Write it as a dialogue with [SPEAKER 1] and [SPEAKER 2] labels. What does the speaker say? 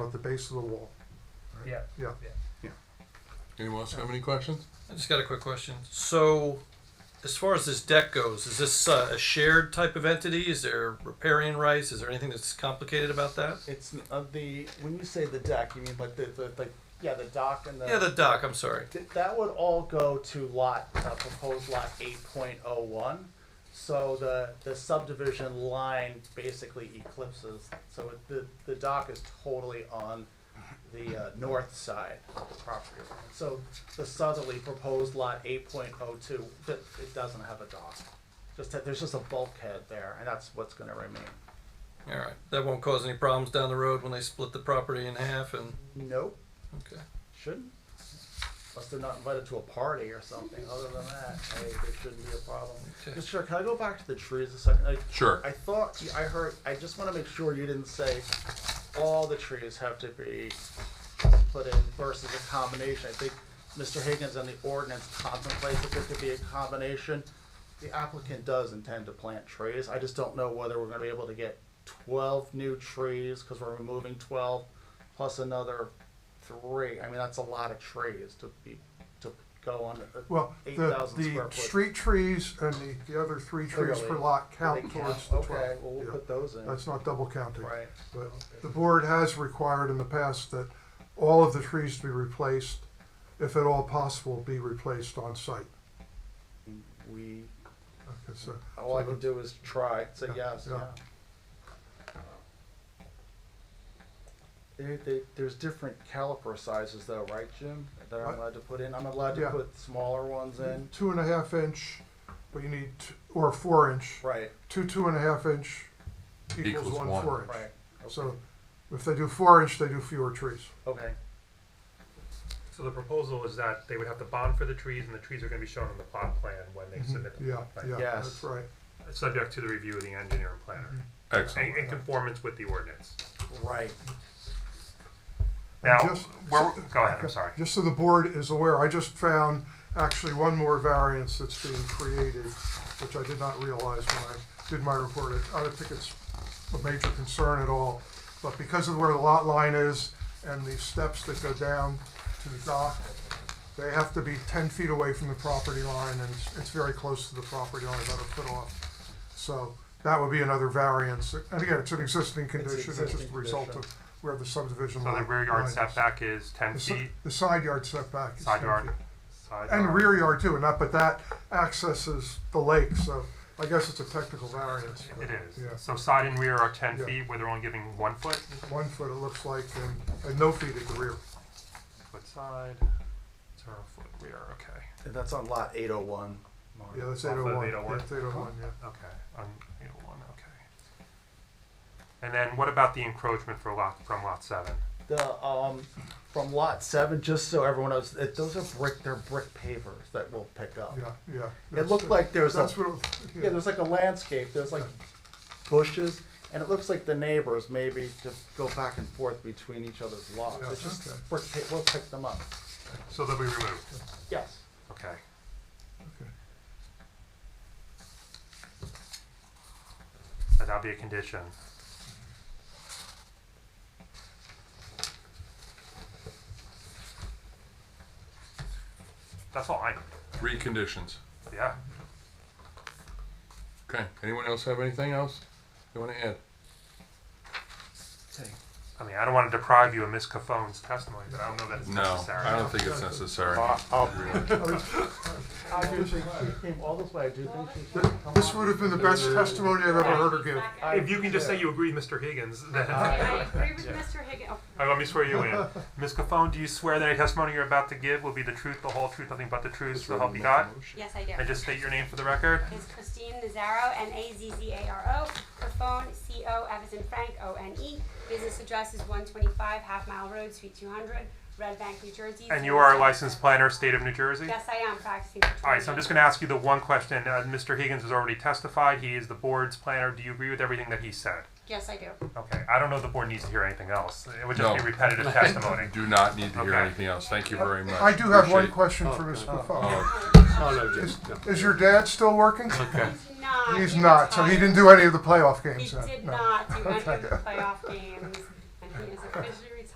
[SPEAKER 1] on the base of the wall.
[SPEAKER 2] Yeah.
[SPEAKER 1] Yeah.
[SPEAKER 3] Anyone else have any questions?
[SPEAKER 2] I just got a quick question. So, as far as this deck goes, is this uh, a shared type of entity? Is there riparian rights? Is there anything that's complicated about that?
[SPEAKER 4] It's n- of the when you say the deck, you mean like the, the like yeah the dock and the
[SPEAKER 2] Yeah, the dock. I'm sorry.
[SPEAKER 4] Th- that would all go to lot uh, proposed lot eight point oh one. So the the subdivision line basically eclipses. So it, the the dock is totally on the uh, north side of the property line. So the southerly proposed lot eight point oh two that it doesn't have a dock. Just that there's just a bulkhead there, and that's what's going to remain.
[SPEAKER 2] All right, that won't cause any problems down the road when they split the property in half. And
[SPEAKER 4] Nope.
[SPEAKER 2] okay,
[SPEAKER 4] Shouldn't. Unless they're not invited to a party or something. Other than that, hey, there shouldn't be a problem.
[SPEAKER 2] Okay.
[SPEAKER 4] Mr. Chair, can I go back to the trees a second? I,
[SPEAKER 3] Sure.
[SPEAKER 4] I thought, you- I heard, I just want to make sure you didn't say all the trees have to be put in versus a combination. I think Mr. Higgins and the ordinance contemplates that there could be a combination. The applicant does intend to plant trees. I just don't know whether we're gonna be able to get twelve new trees, cause we're removing twelve, plus another three. I mean, that's a lot of trees to be, to go on. a-
[SPEAKER 1] Well, the,
[SPEAKER 4] 8,000
[SPEAKER 1] the
[SPEAKER 4] square foot.
[SPEAKER 1] street trees and the, the other three trees per
[SPEAKER 4] Clearly.
[SPEAKER 1] lot
[SPEAKER 4] They
[SPEAKER 1] count
[SPEAKER 4] count.
[SPEAKER 1] towards the
[SPEAKER 4] Okay,
[SPEAKER 1] twelve.
[SPEAKER 4] well, we'll
[SPEAKER 1] Yeah.
[SPEAKER 4] put those in.
[SPEAKER 1] That's not double counting.
[SPEAKER 4] Right.
[SPEAKER 1] But the board has required in the past that all of the trees to be replaced, if at all possible, be replaced on site.
[SPEAKER 4] We,
[SPEAKER 1] Okay, so,
[SPEAKER 4] all I can do is try, say
[SPEAKER 1] Yeah,
[SPEAKER 4] yes,
[SPEAKER 1] yeah.
[SPEAKER 4] yeah. There, there, there's different caliper sizes though, right, Jim, that I'm
[SPEAKER 1] Right.
[SPEAKER 4] allowed to put in? I'm allowed to
[SPEAKER 1] Yeah.
[SPEAKER 4] put smaller ones in?
[SPEAKER 1] two and a half inch, but you need, t- or four inch,
[SPEAKER 4] Right,
[SPEAKER 1] two, two and a half inch equals
[SPEAKER 3] Equals
[SPEAKER 1] one
[SPEAKER 3] one.
[SPEAKER 1] four inch.
[SPEAKER 4] right,
[SPEAKER 1] So if they do four inch, they do fewer trees.
[SPEAKER 4] okay.
[SPEAKER 5] So the proposal is that they would have to bond for the trees, and the trees are gonna be shown on the plot plan when they submit the
[SPEAKER 1] Mm-hmm. Yeah,
[SPEAKER 5] plot plan.
[SPEAKER 1] yeah,
[SPEAKER 4] Yes.
[SPEAKER 1] that's right.
[SPEAKER 5] Subject to the review of the engineer and planner,
[SPEAKER 1] Mm-hmm.
[SPEAKER 3] Excellent.
[SPEAKER 5] in, in conformance with the ordinance.
[SPEAKER 4] Right.
[SPEAKER 5] Now,
[SPEAKER 1] just-
[SPEAKER 5] where, go ahead, I'm sorry.
[SPEAKER 1] Just so the board is aware, I just found actually one more variance that's being created, which I did not realize when I did my report. I don't think it's a major concern at all, but because of where the lot line is and the steps that go down to the dock, they have to be ten feet away from the property line, and it's- it's very close to the property line, about a foot off. So that would be another variance. And again, it's an existing condition, it's just a
[SPEAKER 4] existing
[SPEAKER 1] result
[SPEAKER 4] condition.
[SPEAKER 1] of where the subdivision
[SPEAKER 5] So
[SPEAKER 1] line.
[SPEAKER 5] the rear yard
[SPEAKER 1] line is.
[SPEAKER 5] setback is ten
[SPEAKER 1] The si-
[SPEAKER 5] feet,
[SPEAKER 1] The side yard setback. is
[SPEAKER 5] side
[SPEAKER 1] 10
[SPEAKER 5] yard,
[SPEAKER 1] feet.
[SPEAKER 5] side
[SPEAKER 1] And
[SPEAKER 5] yard.
[SPEAKER 1] rear yard too, and that, but that accesses the lake, so I guess it's a technical variance. but,
[SPEAKER 5] It
[SPEAKER 1] Yeah,
[SPEAKER 5] is, so side and rear are ten
[SPEAKER 1] Yeah.
[SPEAKER 5] feet, where they're only giving one foot,
[SPEAKER 1] one foot it looks like, and, and no feet at the rear.
[SPEAKER 5] foot side, zero foot rear, okay,
[SPEAKER 4] And that's on lot eight oh one.
[SPEAKER 1] Yeah, that's
[SPEAKER 5] Off
[SPEAKER 1] eight
[SPEAKER 5] of
[SPEAKER 1] oh one.
[SPEAKER 5] 801.
[SPEAKER 1] Eight oh one, yeah.
[SPEAKER 5] okay, on eight oh one, okay. And then what about the encroachment for lot, from lot seven?
[SPEAKER 4] The, um, from lot seven, just so everyone knows, it, those are brick, they're brick pavers that we'll pick up.
[SPEAKER 1] Yeah, yeah.
[SPEAKER 4] It
[SPEAKER 1] that's-
[SPEAKER 4] looked like there was a
[SPEAKER 1] That's what, it-
[SPEAKER 4] Yeah,
[SPEAKER 1] yeah,
[SPEAKER 4] there's like a landscape, there's like bushes, and it looks like the neighbors maybe just go back and forth between each other's lots.
[SPEAKER 1] Yeah,
[SPEAKER 4] It's just,
[SPEAKER 1] okay.
[SPEAKER 4] brick pa- we'll pick them up.
[SPEAKER 5] So they'll be removed,
[SPEAKER 4] Yes.
[SPEAKER 5] okay.
[SPEAKER 1] okay.
[SPEAKER 5] And that'll be a condition. That's all I,
[SPEAKER 3] Three conditions.
[SPEAKER 5] yeah.
[SPEAKER 3] Okay. Anyone else have anything else they want to add?
[SPEAKER 5] I mean, I don't want to deprive you of Ms. Caffone's testimony, but I don't know that it's
[SPEAKER 3] No,
[SPEAKER 5] necessary.
[SPEAKER 3] I don't think it's necessary.
[SPEAKER 4] I do think she came all this way, I do think she should come
[SPEAKER 1] This
[SPEAKER 4] up.
[SPEAKER 1] would have been the best testimony I've ever heard her give.
[SPEAKER 5] If you can just say you agree, with Mr. Higgins, then. All
[SPEAKER 6] I agree with oh, Mr. Higgins.
[SPEAKER 5] right, let me swear you in. Ms. Caffone, do you swear that any testimony you're about to give will be the truth, the whole truth, nothing but the truth, so help you God?
[SPEAKER 6] Yes, I do.
[SPEAKER 5] And just state your name for the record.
[SPEAKER 6] Is Christine Nazaro, N-A-Z-Z-A-R-O. Her phone, C-O, F as in Frank, O-N-E. Business address is 125 Half Mile Road, Suite 200, Red Bank, New Jersey.
[SPEAKER 5] And you are a licensed planner, state of New Jersey?
[SPEAKER 6] Yes, I am practicing. for
[SPEAKER 5] All right, so I'm
[SPEAKER 6] 20
[SPEAKER 5] just going to ask you the one question. Uh, Mr. Higgins has already testified. He is the board's planner. Do you agree with everything that he said?
[SPEAKER 6] Yes, I do.
[SPEAKER 5] Okay, I don't know if the board needs to hear anything else. It would just
[SPEAKER 3] No.
[SPEAKER 5] be repetitive testimony.
[SPEAKER 3] Do not need to hear
[SPEAKER 5] Okay.
[SPEAKER 3] anything else. Thank you very much.
[SPEAKER 1] Uh, I do have one
[SPEAKER 3] Appreciate-
[SPEAKER 1] question for Ms. Buffon.
[SPEAKER 3] Oh,
[SPEAKER 1] Is, is your dad still working?
[SPEAKER 3] okay.
[SPEAKER 6] He's not.
[SPEAKER 1] He's
[SPEAKER 6] he
[SPEAKER 1] not, so he
[SPEAKER 6] retired.
[SPEAKER 1] didn't do any of the playoff games
[SPEAKER 6] He
[SPEAKER 1] then?
[SPEAKER 6] did
[SPEAKER 1] No.
[SPEAKER 6] not do any of the playoff games. And he is officially